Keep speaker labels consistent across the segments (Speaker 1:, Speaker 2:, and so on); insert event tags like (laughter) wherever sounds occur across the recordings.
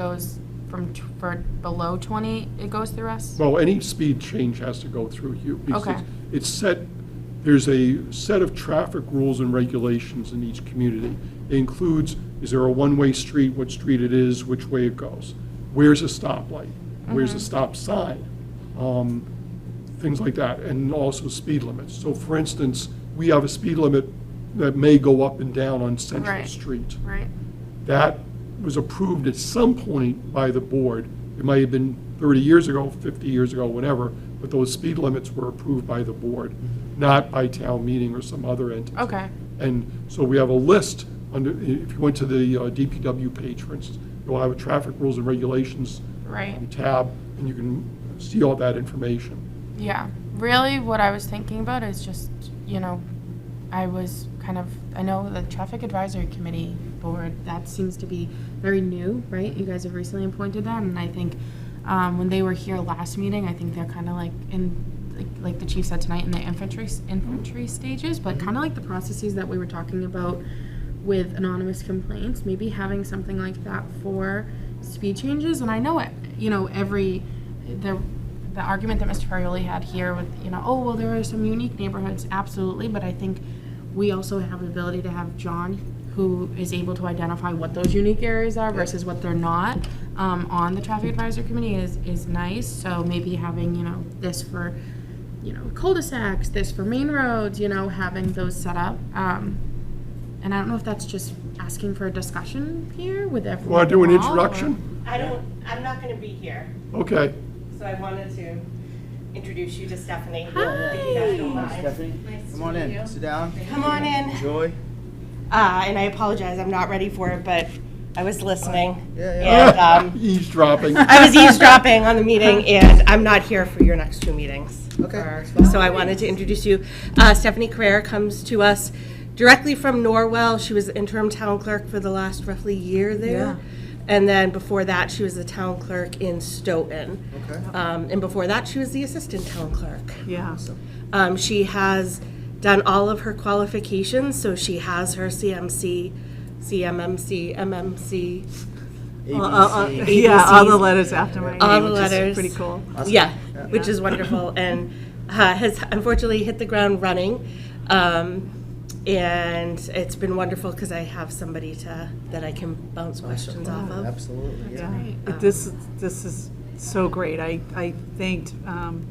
Speaker 1: goes from, t- for below 20, it goes through us?
Speaker 2: Well, any speed change has to go through you. because
Speaker 1: Okay.
Speaker 2: It's set, there's a set of traffic rules and regulations in each community. It includes, is there a one-way street, what street it is, which way it goes? Where's a stoplight? Where's a
Speaker 1: Mm-hmm.
Speaker 2: stop sign? Um, Things like that, and also speed limits. So for instance, we have a speed limit that may go up and down on Central
Speaker 1: Right.
Speaker 2: Street.
Speaker 1: Right?
Speaker 2: That was approved at some point by the board. It might have been 30 years ago, 50 years ago, whatever, but those speed limits were approved by the board, not by town meeting or some other entity.
Speaker 1: Okay,
Speaker 2: And so we have a list under, if you went to the uh, DPW page, for instance, you'll have a traffic rules and regulations
Speaker 1: right.
Speaker 2: tab, and you can see all that information.
Speaker 1: Yeah. Really, what I was thinking about is just, you know, I was kind of, I know the Traffic Advisory Committee Board, that seems to be very new, right? You guys have recently appointed that, and I think um, when they were here last meeting, I think they're kind of like in, like- like the chief said tonight, in the infantry, s- infantry stages, but kind of like the processes that we were talking about with anonymous complaints, maybe having something like that for speed changes. And I know it, you know, every, the, the argument that Mr. Ferrioli had here with, you know, oh, well, there are some unique neighborhoods, absolutely, but I think we also have the ability to have John, who is able to identify what those unique areas are versus what they're not, um, on the traffic advisory committee is, is nice. So maybe having, you know, this for, you know, cul-de-sacs, this for main roads, you know, having those set up. Um, and I don't know if that's just asking for a discussion here with everyone.
Speaker 2: Want to do an
Speaker 1: involved, or-
Speaker 2: introduction?
Speaker 3: I don't, I'm not going to be here,
Speaker 2: Okay.
Speaker 3: so I wanted to introduce you to Stephanie.
Speaker 1: Hi.
Speaker 3: If you guys don't mind.
Speaker 4: Stephanie, come on in, sit down,
Speaker 3: Come on in.
Speaker 4: enjoy.
Speaker 3: Uh, And I apologize, I'm not ready for it, but I was listening.
Speaker 4: Yeah, yeah.
Speaker 3: And um,
Speaker 5: (laughs)
Speaker 2: Eavesdropping.
Speaker 3: I was eavesdropping on the meeting, and I'm not here for your next two meetings.
Speaker 4: Okay,
Speaker 3: Or-
Speaker 4: that's fine.
Speaker 3: So I wanted to introduce you. Uh, Stephanie Carrera comes to us directly from Norwell. She was interim town clerk for the last roughly year there. And then before that, she was the town clerk in Stoughton.
Speaker 4: Okay.
Speaker 3: Um, And before that, she was the assistant town clerk.
Speaker 5: Yeah,
Speaker 3: Um, she has done all of her qualifications, so she has her CMC, CMMC, MMC.
Speaker 4: ABC.
Speaker 5: uh, (laughs) yeah, all the letters after my
Speaker 3: All
Speaker 5: name,
Speaker 3: the
Speaker 5: which
Speaker 3: letters.
Speaker 5: is pretty cool.
Speaker 3: Yeah, which is wonderful, and uh, has unfortunately hit the ground running. Um, and it's been wonderful because I have somebody to that I can bounce questions off of.
Speaker 4: Absolutely, yeah.
Speaker 5: Yeah. But This, this is so great. I, I thanked um,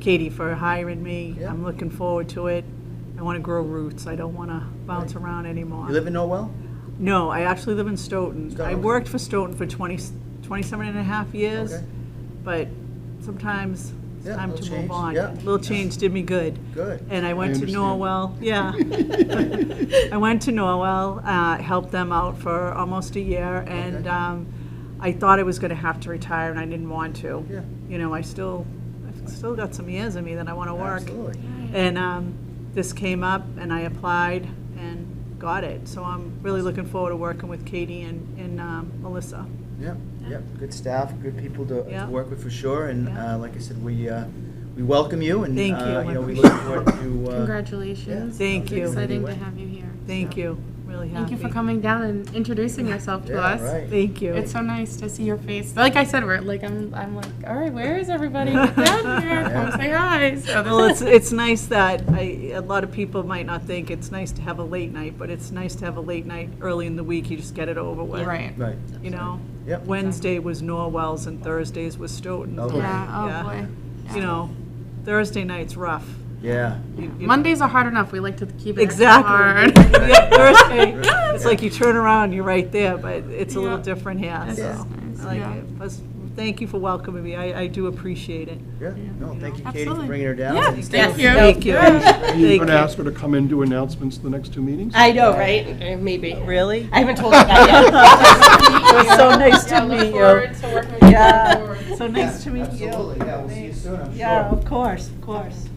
Speaker 5: Katie for hiring me.
Speaker 4: Yeah.
Speaker 5: I'm looking forward to it. I want to grow roots. I don't want to bounce around anymore.
Speaker 4: You live in Norwell?
Speaker 5: No, I actually live in Stoughton. I
Speaker 4: Stoughton.
Speaker 5: worked for Stoughton for 20, 27 and a half years,
Speaker 4: Okay.
Speaker 5: but sometimes it's
Speaker 4: Yeah,
Speaker 5: time
Speaker 4: little
Speaker 5: to move
Speaker 4: change.
Speaker 5: on.
Speaker 4: Yeah.
Speaker 5: Little change did me good.
Speaker 4: Good.
Speaker 5: And I went
Speaker 2: I
Speaker 5: to
Speaker 2: understand.
Speaker 5: Norwell,
Speaker 4: (laughs)
Speaker 5: yeah. I went to Norwell, uh, helped them out for almost a year, and
Speaker 4: Okay.
Speaker 5: um, I thought I was going to have to retire, and I didn't want to.
Speaker 4: Yeah.
Speaker 5: You know, I still, I've still got some years in me that I want to work.
Speaker 4: Absolutely.
Speaker 5: And um, this came up, and I applied and got it. So I'm really looking forward to working with Katie and, and um, Melissa.
Speaker 4: Yep, yep, good staff, good people to, to
Speaker 5: Yeah.
Speaker 4: work with for sure, and
Speaker 5: Yeah.
Speaker 4: uh, like I said, we, uh, we welcome you, and, uh, you
Speaker 5: Thank you.
Speaker 4: know, we look forward
Speaker 5: (laughs)
Speaker 4: to, uh,
Speaker 1: Congratulations.
Speaker 5: Thank you.
Speaker 1: Exciting to have you here.
Speaker 5: Thank you. Really happy.
Speaker 1: Thank you for coming down and introducing yourself to us.
Speaker 4: yeah, right.
Speaker 5: Thank you.
Speaker 1: It's so nice to see your face. Like I said, we're like I'm. I'm like, all right, where is
Speaker 5: (laughs)
Speaker 1: everybody? Get down here, come say hi. So
Speaker 5: well,
Speaker 1: this
Speaker 5: it's, it's nice that I, a lot of people might not think it's nice to have a late night, but it's nice to have a late night early in the week. You just get it over with.
Speaker 1: is (laughs) right.
Speaker 4: Right,
Speaker 5: You know,
Speaker 4: Yep.
Speaker 5: Wednesday was Norwell's and Thursdays was Stoughton.
Speaker 4: Okay.
Speaker 1: Yeah. Oh
Speaker 5: Yeah.
Speaker 1: boy.
Speaker 5: You know, Thursday night's rough.
Speaker 4: yeah,
Speaker 5: You- you-
Speaker 1: Mondays are hard enough. We like to keep it extra (laughs)
Speaker 5: Exactly.
Speaker 1: hard.
Speaker 5: (laughs) Yeah, Thursday, it's like you turn around, you're right there, but it's a little
Speaker 1: Yeah.
Speaker 5: different here,
Speaker 1: This
Speaker 5: so.
Speaker 1: is nice,
Speaker 5: I like
Speaker 1: yeah.
Speaker 5: it. Plus, thank you for welcoming me, I, I do appreciate it.
Speaker 4: yeah, no, thank you Katie for
Speaker 1: Absolutely.
Speaker 4: bringing her down.
Speaker 1: Yeah,
Speaker 4: and
Speaker 1: thank you.
Speaker 5: Thank you.
Speaker 2: Are you
Speaker 5: Thank
Speaker 2: going to
Speaker 5: you.
Speaker 2: ask her to come in and do announcements the next two meetings?
Speaker 3: I know, right? Uh, Maybe.
Speaker 5: Really?
Speaker 3: I haven't told you that (laughs)
Speaker 5: It was so nice to meet you.
Speaker 1: to working with you.
Speaker 5: So nice to meet you.
Speaker 4: Absolutely, yeah, we'll see you soon, I'm sure.
Speaker 5: Yeah, of course, of course.
Speaker 3: yet.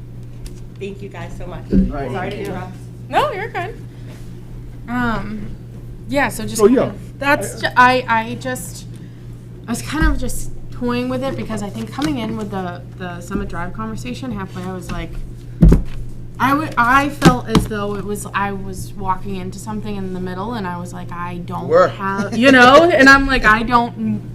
Speaker 3: Thank you guys so much.
Speaker 4: All right.
Speaker 3: Sorry to interrupt.
Speaker 1: No, you're good. Um, Oh, yeah. So just.
Speaker 2: So, yeah.
Speaker 1: That's ju- I I just I was kind of just toying with it because I think coming in with the the Summit Drive conversation halfway, I was like, I would I felt as though it was I was walking into something in the middle, and I was like, I don't
Speaker 4: were.
Speaker 1: have you know, and I'm like, I don't